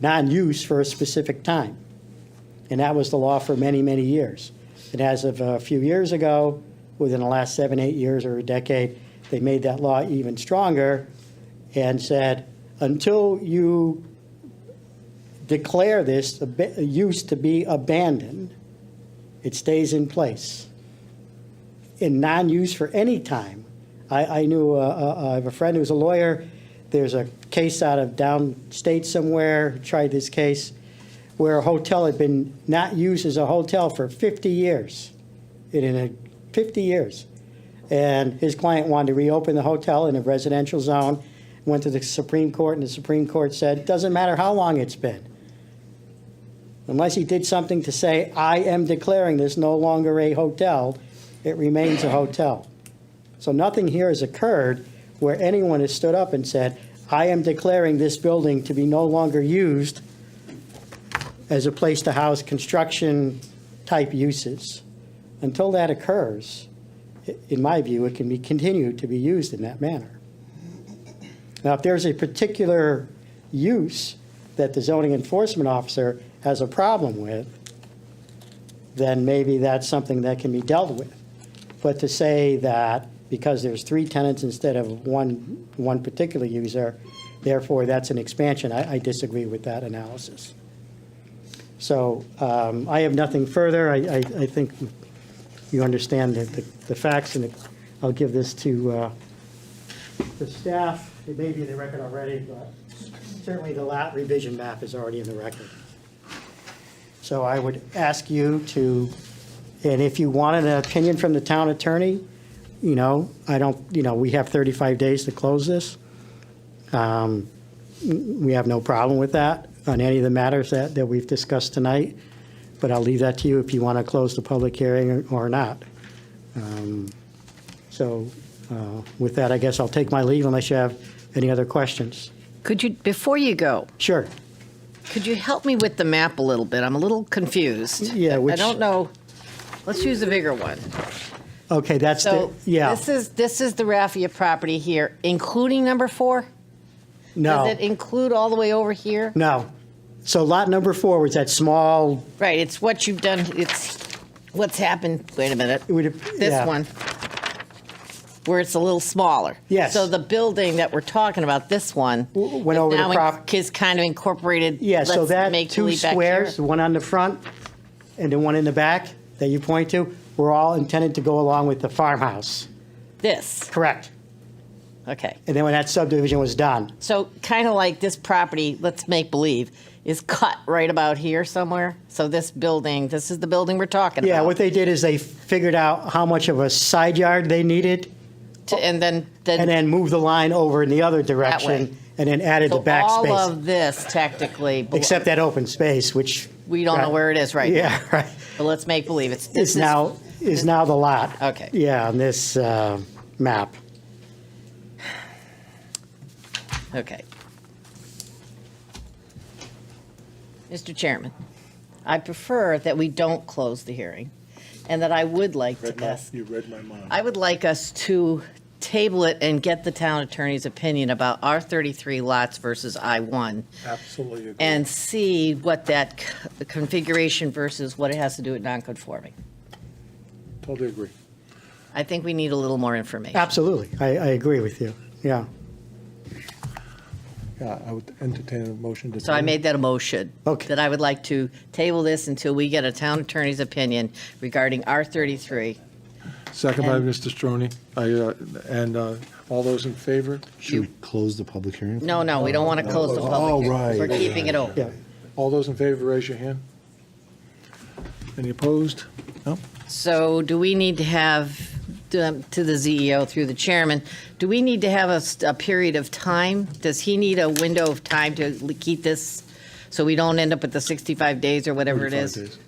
non-use for a specific time. And that was the law for many, many years. And as of a few years ago, within the last seven, eight years or a decade, they made that law even stronger and said, until you declare this ab- use to be abandoned, it stays in place. In non-use for any time. I, I knew, uh, uh, I have a friend who's a lawyer, there's a case out of downstate somewhere, tried this case, where a hotel had been not used as a hotel for 50 years, in, in a, 50 years. And his client wanted to reopen the hotel in a residential zone, went to the Supreme Court, and the Supreme Court said, doesn't matter how long it's been. Unless he did something to say, I am declaring this no longer a hotel, it remains a hotel. So nothing here has occurred where anyone has stood up and said, I am declaring this building to be no longer used as a place to house construction-type uses. Until that occurs, i- in my view, it can be continued to be used in that manner. Now, if there's a particular use that the zoning enforcement officer has a problem with, then maybe that's something that can be dealt with. But to say that because there's three tenants instead of one, one particular user, therefore that's an expansion, I, I disagree with that analysis. So um, I have nothing further. I, I, I think you understand the, the the facts, and I'll give this to uh, the staff. It may be in the record already, but certainly the lat revision map is already in the record. So I would ask you to, and if you wanted an opinion from the town attorney, you know, I don't, you know, we have 35 days to close this. Um, we have no problem with that on any of the matters that, that we've discussed tonight, but I'll leave that to you if you want to close the public hearing or- or not. Um, So uh, with that, I guess I'll take my leave unless you have any other questions. Could you, before you go, Sure. could you help me with the map a little bit? I'm a little confused. Yeah, I which- don't know. Let's use a bigger one. Okay, that's the, So yeah. this is this is the Raffia property here, including number four. Does No, it include all the way over here? no. So lot number four was that small, Right. It's what you've done. It's what's happened. Wait a minute. it would, This yeah. one, where it's a little smaller. Yes. So the building that we're talking about, this one, W- went is over the now prop- is kind of incorporated. Yeah, so let's that make two believe back squares, the here. one on the front and the one in the back that you point to, were all intended to go along with the farmhouse. This. Correct. Okay. And then when that subdivision was done, So kind of like this property, let's make believe, is cut right about here somewhere. So this building, this is the building we're talking yeah, about. what they did is they figured out how much of a side yard they needed To- and then, then, and then moved the line over in the other way. direction and then added the so back all space, of this technically, belo- except that open space, which. we don't know where it is right now. Yeah, right. But let's make believe it's Is this is- now, is now the lot. Okay. Yeah, on this uh, map. Okay. Mr. Chairman, I prefer that we don't close the hearing and that I would like to Read my, ask, you read my mind. I would like us to table it and get the town attorney's opinion about our 33 lots versus I-1 Absolutely agree. and see what that c- configuration versus what it has to do with non-conforming. Totally agree. I think we need a little more information. Absolutely. I, I agree with you. Yeah. Yeah, I would entertain a motion to. So I made that a motion. Okay. That I would like to table this until we get a town attorney's opinion regarding R-33. Second by and- Mr. Stroni. I, uh, and, uh, all those in favor? Should we close the public hearing? No, no, we don't want to close the Oh, public hearing. right. We're keeping it open. Yeah. All those in favor, raise your hand. Any opposed? No? So do we need to have, um, to the CEO through the chairman, do we need to have a, s- a period of time? Does he need a window of time to l- keep this, so we don't end up with the 65 days or whatever it 45 is? days.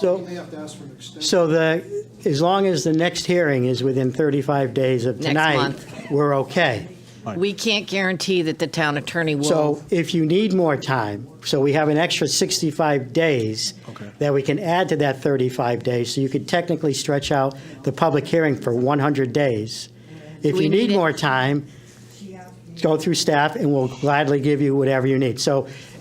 So. You may Uh, have to ask for an extension. So the, as long as the next hearing is within 35 days of Next tonight, month. we're okay. We can't guarantee that the town attorney will. So if you need more time, so we have an extra 65 days Okay. that we can add to that 35 days, so you could technically stretch out the public hearing for 100 days. If We you need need it- more time, go through staff, and we'll gladly give you whatever you need. So